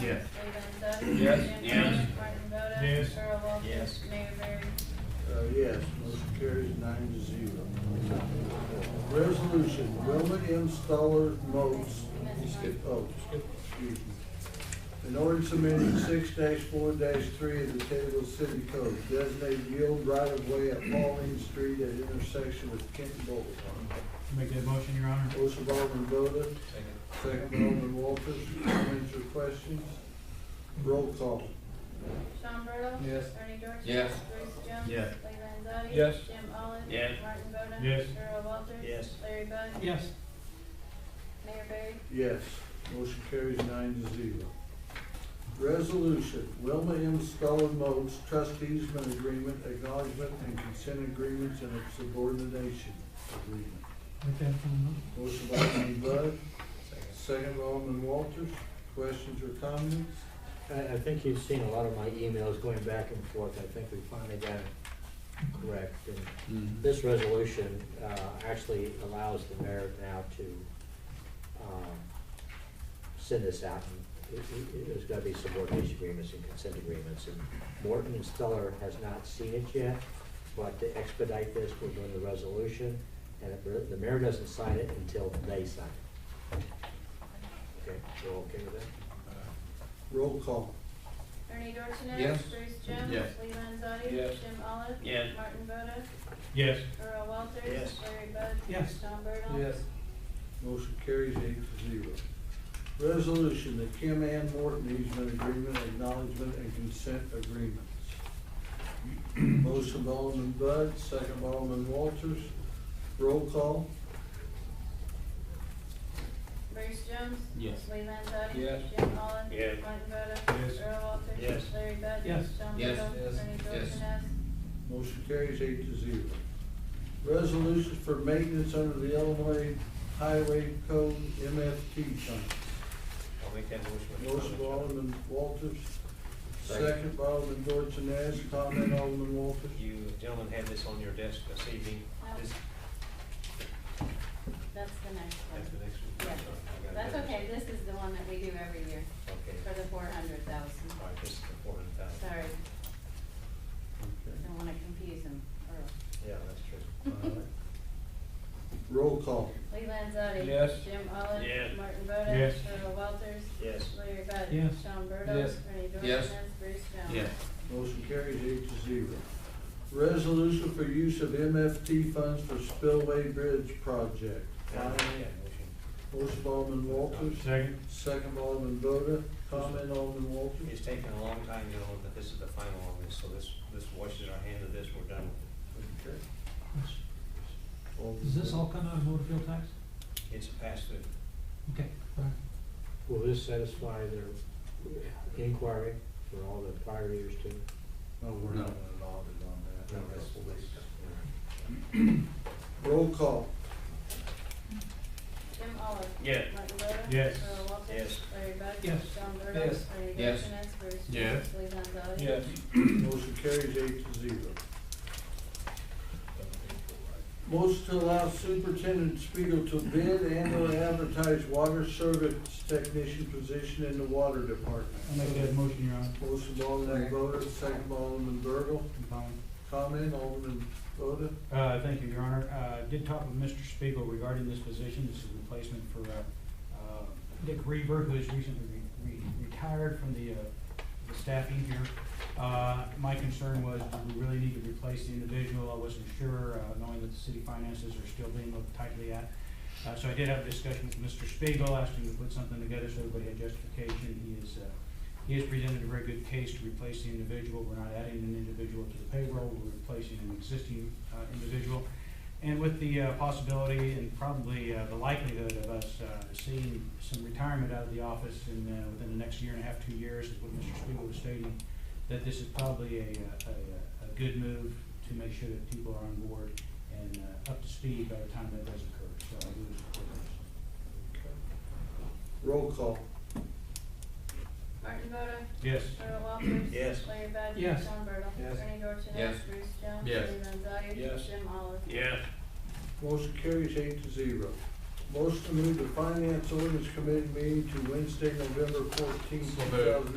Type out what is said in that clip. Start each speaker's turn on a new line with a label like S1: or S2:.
S1: Yes.
S2: Lee Landzadi.
S3: Yes.
S2: Dan
S1: Yes.
S2: Miller, Martin Boda.
S4: Yes.
S2: Earl Walters.
S3: Yes.
S2: Mayor Barry.
S5: Uh, yes, motion carries nine to zero. Resolution, Wilma Installer Modes.
S2: You skipped.
S5: Oh, excuse me. An ordinance amending six four three of the Taylorville City Code, designated yield right of way at Pauline Street at intersection with Kent Boulevard.
S4: Make that motion, Your Honor.
S5: Motion by Alderman Boda, second by Alderman Walters, comments or questions? Roll call.
S2: Sean Burdell.
S3: Yes.
S2: Bernie Dorchenez.
S3: Yes.
S2: Bruce Jones.
S1: Yes.
S2: Lee Landzadi.
S3: Yes.
S2: Jim Olive.
S1: Yes.
S2: Martin Boda.
S4: Yes.
S2: Earl Walters.
S3: Yes.
S2: Larry Bud.
S4: Yes.
S2: Mayor Barry.
S5: Yes, motion carries nine to zero. Resolution, Wilma M. Scullin Modes Trust Easement Agreement, Acknowledgement and Consent Agreements and Subordination Agreement.
S4: Make that motion.
S5: Motion by Alderman Bud, second by Alderman Walters, questions or comments?
S6: I, I think you've seen a lot of my emails going back and forth, I think we finally got it correct. And This resolution, uh, actually allows the mayor now to, um, send this out. And it- it- There's gotta be subordination agreements and consent agreements, and Morton and Stellar has not seen it yet, but to expedite this, we're doing the resolution, and if the mayor doesn't sign it until they sign it. Okay, we're okay with that?
S5: Roll call.
S2: Bernie Dorchenez.
S3: Yes.
S2: Bruce Jones.
S1: Yes.
S2: Lee Landzadi.
S3: Yes.
S2: Jim Olive.
S1: Yes.
S2: Martin Boda.
S4: Yes.
S2: Earl Walters.
S3: Yes.
S2: Larry Bud.
S4: Yes.
S2: Sean Burdell.
S5: Motion carries eight to zero. Resolution, the Kim Ann Morton easement agreement, acknowledgement and consent agreements. Motion by Alderman Bud, second by Alderman Walters. Roll call?
S2: Bruce Jones.
S1: Yes.
S2: Lee Landzadi.
S3: Yes.
S2: Jim Olive.
S1: Yes.
S2: Martin Boda.
S4: Yes.
S2: Earl Walters.
S3: Yes.
S2: Larry Bud.
S4: Yes.
S2: Sean
S1: Yes.
S2: Burdell.
S3: Yes.
S2: Bernie
S3: Yes.
S2: Dorchenez.
S5: Motion carries eight to zero. Resolution for maintenance under the Illinois Highway Code MFT contract.
S3: I'll make that motion. with
S5: Motion by
S3: comments.
S5: Alderman Walters,
S3: Second.
S5: second by Alderman Dorsones, comment Alderman Walters.
S3: You gentlemen have this on your desk this evening.
S7: Oh.
S2: No.
S3: This,
S7: That's the next
S3: that's the
S7: one.
S3: next one.
S7: Yes.
S3: I got it.
S7: That's okay, this is the one that we do every year
S3: Okay.
S7: for the four hundred thousand.
S3: All right, this is the four hundred thousand.
S7: Sorry,
S5: Okay.
S7: don't wanna confuse them, Earl.
S3: Yeah, that's true.
S5: All right. Roll call.
S2: Lee Landzadi.
S3: Yes.
S2: Jim Olive.
S1: Yes.
S2: Martin Boda.
S4: Yes.
S2: Earl Walters.
S3: Yes.
S2: Larry Bud.
S4: Yes.
S2: Sean Burdell.
S3: Yes.
S2: Bernie Dorchenez.
S1: Yes.
S2: Bruce Jones.
S1: Yes.
S5: Motion carries eight to zero. Resolution for use of MFT funds for spillway bridge project.
S3: I'll make
S5: Finally,
S3: that motion.
S5: Motion by Alderman Walters,
S4: Second.
S5: second by Alderman Boda, comment Alderman Walters.
S3: It's taken a long time, gentlemen, but this is the final on this, so this, this washes our hand of this, we're done with it.
S5: Okay.
S4: Does this all come out of motor fuel tax?
S3: It's passed through.
S4: Okay.
S6: Will this satisfy their inquiry for all the prior years too?
S5: No, we're
S1: No.
S5: not allowed it on that.
S3: No, that's-
S5: Roll call.
S2: Jim Olive.
S1: Yes.
S2: Martin Boda.
S4: Yes.
S2: Earl Walters.
S3: Yes.
S2: Larry Bud.
S4: Yes.
S2: Sean Burdell.
S3: Yes.
S2: Bernie
S1: Yes.
S2: Dorchenez. Bruce Jones.
S1: Yes.
S2: Lee Landzadi.
S5: Motion carries eight to zero. Motion to allow Superintendent Spiegel to bid and or advertise water service technician position in the water department.
S4: I'll make that motion, Your Honor.
S5: Motion by Alderman Boda, second by Alderman Bertle.
S4: Fine.
S5: Comment, Alderman Boda?
S4: Uh, Thank you, Your Honor. Uh, Did talk with Mr. Spiegel regarding this position. This is a replacement for uh, uh, Dick Reaver, who is recently re- re- retired from the uh, the staffing here. Uh, My concern was, do we really need to replace the individual? I wasn't sure, uh, knowing that the city finances are still being looked tightly at. Uh, So I did have a discussion with Mr. Spiegel, asked him to put something together so everybody had justification. He is uh, he has presented a very good case to replace the individual. We're not adding an individual to the payroll, we're replacing an existing uh, individual. And with the uh, possibility and probably uh, the likelihood of us uh, seeing some retirement out of the office in, uh, within the next year and a half, two years, is what Mr. Spiegel was stating, that this is probably a, uh, a, a good move to make sure that people are on board and uh, up to speed by the time that does occur. So I do support this.
S5: Roll call.
S2: Martin Boda.
S4: Yes.
S2: Earl Walters.
S3: Yes.
S2: Larry Bud.
S4: Yes.
S2: Sean Burdell.
S3: Yes.
S2: Bernie Dorchenez.
S1: Yes.
S2: Bruce Jones.
S1: Yes.
S2: Lee Landzadi.
S3: Yes.
S2: Jim Olive.
S1: Yes.
S5: Motion carries eight to zero. Motion to move the Finance Ordinance Committee meeting to Wednesday, November fourteenth,
S1: So
S5: two
S1: moved.
S5: thousand